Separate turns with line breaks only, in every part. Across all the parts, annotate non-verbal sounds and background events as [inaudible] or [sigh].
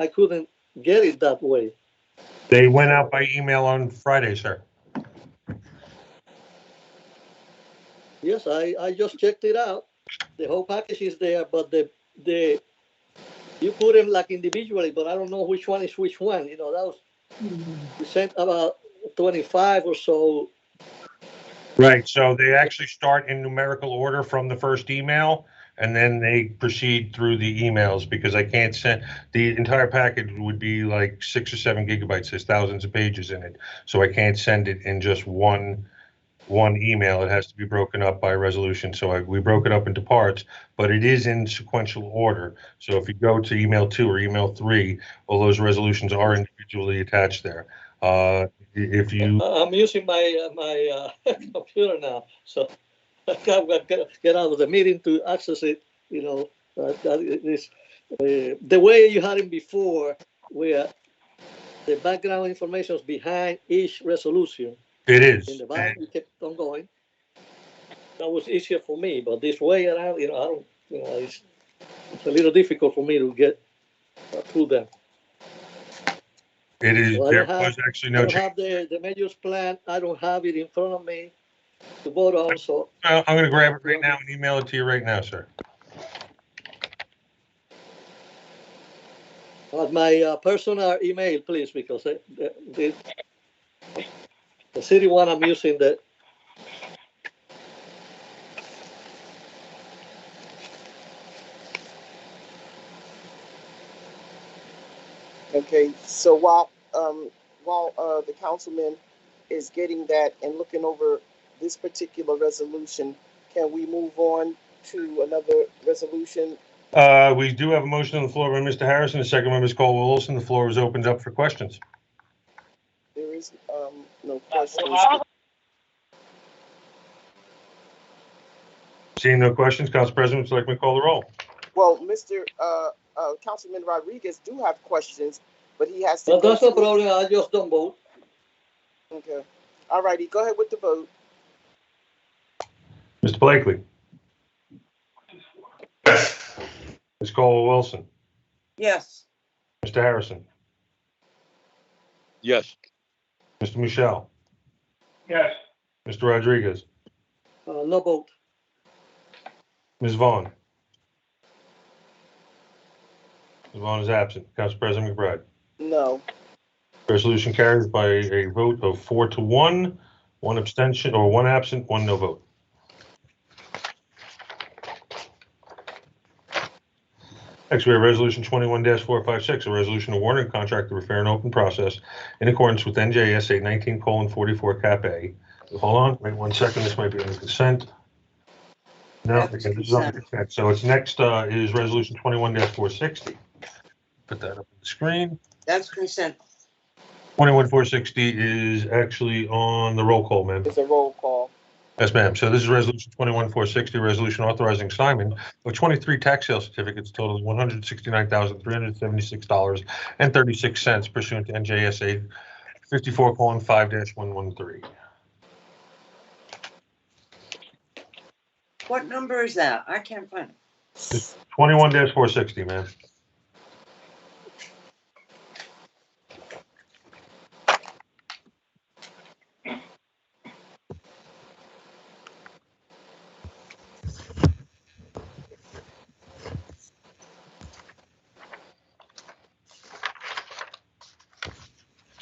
I couldn't get it that way.
They went out by email on Friday, sir.
Yes, I, I just checked it out. The whole package is there, but the, the, you put them like individually, but I don't know which one is which one, you know, that was, we sent about twenty-five or so.
Right. So they actually start in numerical order from the first email, and then they proceed through the emails, because I can't send, the entire package would be like six or seven gigabytes, there's thousands of pages in it, so I can't send it in just one, one email, it has to be broken up by resolution, so I, we broke it up into parts, but it is in sequential order, so if you go to email two or email three, all those resolutions are individually attached there. Uh, i- If you.
I- I'm using my, uh, my, uh, [laughs] computer now, so [laughs] I can't I can't get out of the meeting to access it, you know. uh, that it is, uh, The way you had it before, where the background information is behind each resolution,
It is.
in the back,
and-
we kept on going. That was easier for me, but this way around, you know, I don't, you know, it's, it's a little difficult for me to get uh, through them.
It is,
Well, I
there
have-
was actually
I
no
don't
change.
have the, the measures plan, I don't have it in front of me to vote on, so
I'm going to grab it right now and email it to you right now, sir.
But my uh, personal email, please, because the, the- the, the city one I'm using the.
Okay, so while, um, while, uh, the councilman is getting that and looking over this particular resolution, can we move on to another resolution?
Uh, we do have a motion on the floor by Mr. Harrison, a second by Ms. Caldwell Wilson. The floor is opened up for questions.
There is, um, no questions.
Seeing no questions, Council President, would you like me to call the roll?
Well, Mr., uh, uh, Councilman Rodriguez do have questions, but he has to.
But that's
go
no
through-
problem, I just don't vote.
Okay, all righty, go ahead with the vote.
Mr. Blakely. Ms. Caldwell Wilson,
Yes.
Mr. Harrison,
Yes.
Mr. Michelle,
Yes.
Mr. Rodriguez,
Uh, no vote.
Ms. Vaughn. Ms. Vaughn is absent. Council President McBride.
No,
Resolution carries by a vote of four to one, one abstention, or one absent, one no vote. Next, we have Resolution 21-456, a resolution awarding a contract to repair an open process in accordance with NJSA 19:44 Cap A. Hold on, wait one second, this might be under consent. No,
That was
because this is under consent. So it's next uh, is Resolution 21-460. Put that up on the screen.
That's consent.
21460 is actually on the roll call, ma'am.
it's a roll call.
Yes, ma'am. So this is Resolution 21460, resolution authorizing assignment of 23 tax sale certificates totaling $169,376.36 pursuant to NJSA 54:5-113.
What number is that? I can't find it.
21-460, ma'am.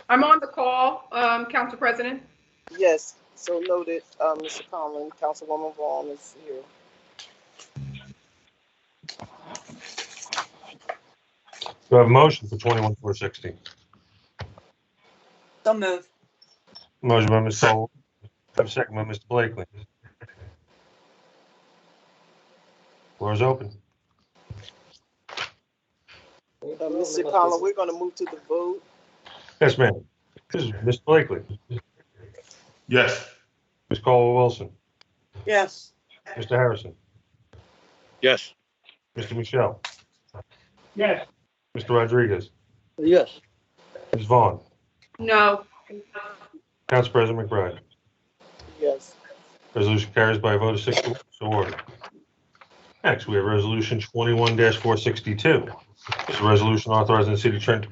I'm on the call, um, Council President.
Yes, so noted, uh, Mr. Conlon, Councilwoman Vaughn is here.
Do I have a motion for 21460?
Don't move.
Motion by Ms. Sullivan, second by Mr. Blakely. Floor is open.
Uh, Mr. Conlon, we're gonna move to the vote.
Yes, ma'am. This is Mr. Blakely.
Yes.
Ms. Caldwell Wilson,
Yes.
Mr. Harrison,
Yes.
Mr. Michelle,
Yes.
Mr. Rodriguez,
Yes,
Ms. Vaughn,
No.
Council President McBride.
Yes,
Resolution carries by a vote of six to one, so ordered. Next, we have Resolution 21-462, This is a resolution authorizing the city attorney to